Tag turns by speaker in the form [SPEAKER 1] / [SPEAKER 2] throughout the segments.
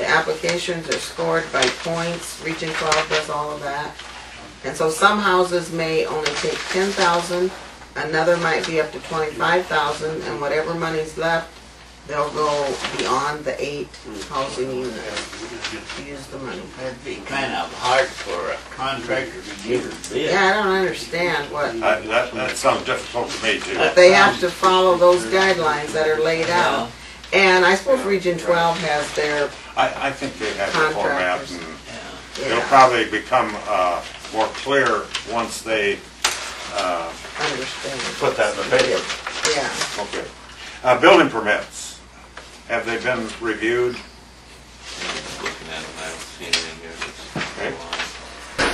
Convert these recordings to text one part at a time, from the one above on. [SPEAKER 1] applications are scored by points, Region Twelve does all of that. And so some houses may only take ten thousand, another might be up to twenty-five thousand, and whatever money's left, they'll go beyond the eight housing units, to use the money.
[SPEAKER 2] It'd be kind of hard for a contractor to give a bid.
[SPEAKER 1] Yeah, I don't understand what,
[SPEAKER 3] I- That, that sounds difficult to me too.
[SPEAKER 1] but they have to follow those guidelines that are laid out. And I suppose Region Twelve has their,
[SPEAKER 3] I, I think they have the format
[SPEAKER 1] Contractors.
[SPEAKER 3] and it'll
[SPEAKER 1] yeah,
[SPEAKER 3] probably become uh, more clear once they uh,
[SPEAKER 1] understand,
[SPEAKER 3] put that in the paper.
[SPEAKER 1] yeah.
[SPEAKER 3] Okay. Uh, Building permits, have they been reviewed?
[SPEAKER 4] Looking at them, I haven't seen anything here that's.
[SPEAKER 3] Okay.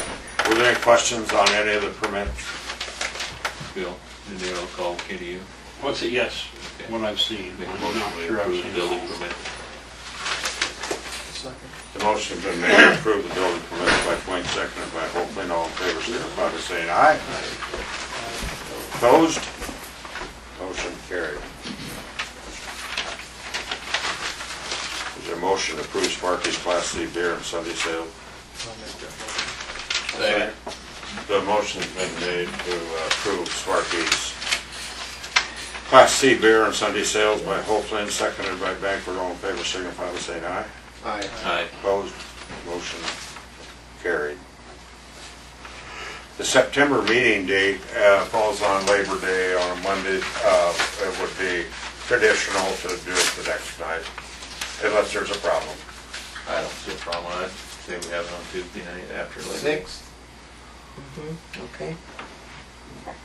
[SPEAKER 3] Were there any questions on any of the permits?
[SPEAKER 4] Bill, did they all call Kitty you?
[SPEAKER 5] What's it, yes, what I've seen.
[SPEAKER 4] Make a
[SPEAKER 5] I'm
[SPEAKER 4] motion
[SPEAKER 5] not
[SPEAKER 4] to
[SPEAKER 5] sure I've
[SPEAKER 4] approve the
[SPEAKER 5] seen
[SPEAKER 4] building
[SPEAKER 5] it.
[SPEAKER 4] permit.
[SPEAKER 3] The motion's been made to approve the building permit by Dwayne, seconded by Hoagland, all in favor, signify by saying aye. Opposed? Motion carried. Is there a motion to approve Sparky's Class C beer and Sunday sale?
[SPEAKER 4] Second.
[SPEAKER 3] The motion's been made to uh, approve Sparky's Class C beer and Sunday sales by Hoagland, seconded by Banford, all in favor, signify by saying aye.
[SPEAKER 6] Aye.
[SPEAKER 4] Aye.
[SPEAKER 3] Opposed, motion carried. The September meeting date uh, falls on Labor Day on a Monday. Uh, It would be traditional to do it the next night, unless there's a problem.
[SPEAKER 4] I don't see a problem with it. Say we have it on Tuesday night after. Labor Day.
[SPEAKER 6] Sixth,
[SPEAKER 1] Okay,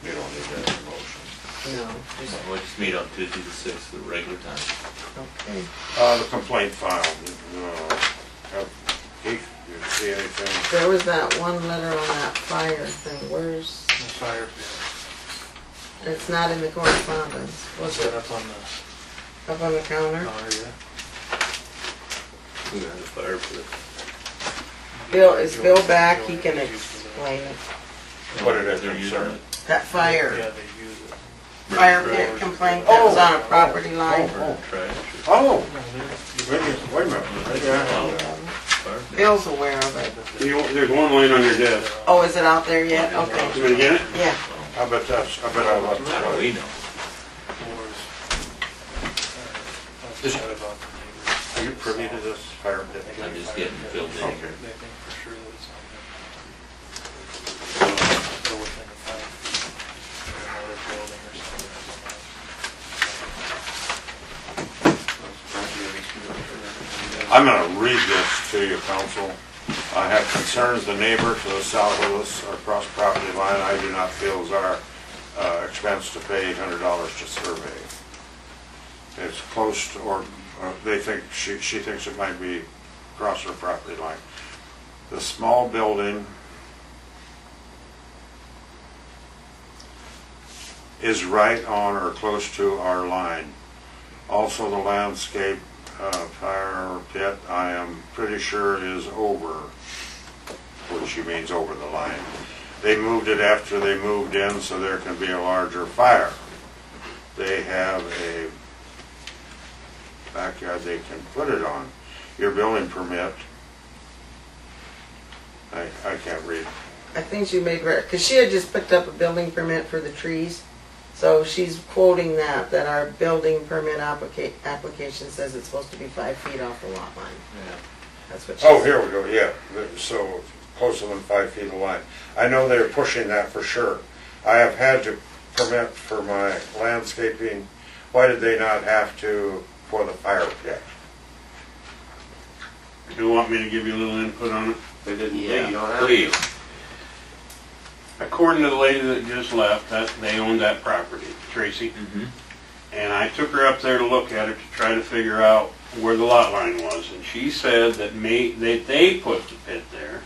[SPEAKER 3] You don't need that in motion.
[SPEAKER 1] no, just,
[SPEAKER 4] We'll just meet on Tuesday the sixth, the regular time.
[SPEAKER 1] okay.
[SPEAKER 3] Uh, The complaint filed, uh, have- Keith, you see anything?
[SPEAKER 1] There was that one letter on that fire thing, where's,
[SPEAKER 6] the fire pit.
[SPEAKER 1] it's not in the correspondence,
[SPEAKER 6] What's that up on the
[SPEAKER 1] up on the counter.
[SPEAKER 6] counter yet?
[SPEAKER 4] We have the fire pit.
[SPEAKER 1] Bill, is Bill back, he can explain it.
[SPEAKER 3] Put it in
[SPEAKER 4] They're using
[SPEAKER 3] concern.
[SPEAKER 4] it.
[SPEAKER 1] That
[SPEAKER 6] Yeah,
[SPEAKER 1] fire,
[SPEAKER 6] they use it.
[SPEAKER 1] fire pit complaint that was on a property line.
[SPEAKER 4] Or trash
[SPEAKER 3] Oh,
[SPEAKER 4] or
[SPEAKER 6] No, they-
[SPEAKER 3] wait a minute, wait a minute. Maybe I have that.
[SPEAKER 4] fire pit.
[SPEAKER 1] Bill's aware of it.
[SPEAKER 7] You know, There's one laying on your desk.
[SPEAKER 1] Oh, is it out there yet?
[SPEAKER 7] You
[SPEAKER 1] Okay,
[SPEAKER 7] gonna get it?
[SPEAKER 1] yeah.
[SPEAKER 3] I bet that's, I bet I left it.
[SPEAKER 4] How do we know?
[SPEAKER 6] Wars. I've heard about the neighbors.
[SPEAKER 3] Are you privy to this fire pit?
[SPEAKER 4] I'm just getting filled in
[SPEAKER 3] Okay.
[SPEAKER 4] here.
[SPEAKER 6] They think for sure that it's on there. Go within the five feet of another building or something.
[SPEAKER 3] I'm gonna read this to you, council. I have concerns the neighbor to the south of us across property line I do not feel is our uh, expense to pay eight hundred dollars to survey. It's close to, or uh, they think, she, she thinks it might be across her property line. The small building is right on or close to our line. Also, the landscape uh, fire pit, I am pretty sure is over, which she means over the line. They moved it after they moved in, so there can be a larger fire. They have a backyard they can put it on. Your building permit, I, I can't read.
[SPEAKER 1] I think she made, because she had just picked up a building permit for the trees. So she's quoting that, that our building permit applica- application says it's supposed to be five feet off the lot line.
[SPEAKER 4] Yeah.
[SPEAKER 1] That's what she
[SPEAKER 3] Oh,
[SPEAKER 1] said.
[SPEAKER 3] here we go, yeah, so closer than five feet of line. I know they're pushing that for sure. I have had to permit for my landscaping, why did they not have to for the fire pit?
[SPEAKER 7] You want me to give you a little input on it? They didn't
[SPEAKER 2] Yeah,
[SPEAKER 4] Please.
[SPEAKER 7] According to the lady that just left, that, they owned that property, Tracy.
[SPEAKER 6] Mm-hmm.
[SPEAKER 4] Mhm.
[SPEAKER 7] And I took her up there to look at it to try to figure out where the lot line was. And she said that may, that they put the pit there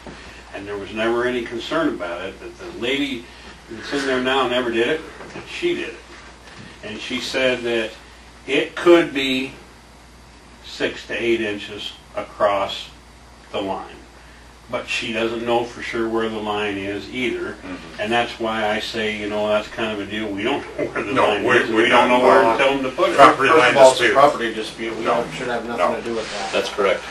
[SPEAKER 7] and there was never any concern about it, that the lady that's in there now never did it, that she did it. And she said that it could be six to eight inches across the line. But she doesn't know for sure where the line is either.
[SPEAKER 3] Mm-hmm.
[SPEAKER 7] And that's why I say, you know, that's kind of a deal. We don't know where the
[SPEAKER 3] No,
[SPEAKER 7] line
[SPEAKER 3] we-
[SPEAKER 7] is.
[SPEAKER 3] we
[SPEAKER 7] We don't
[SPEAKER 3] don't
[SPEAKER 7] know where
[SPEAKER 3] know.
[SPEAKER 7] to tell them to put it.
[SPEAKER 3] Property
[SPEAKER 6] First
[SPEAKER 3] line
[SPEAKER 6] of all, it's a
[SPEAKER 3] dispute.
[SPEAKER 6] property dispute, we
[SPEAKER 3] No.
[SPEAKER 6] don't, should have
[SPEAKER 3] No.
[SPEAKER 6] nothing to do with that.
[SPEAKER 4] That's correct.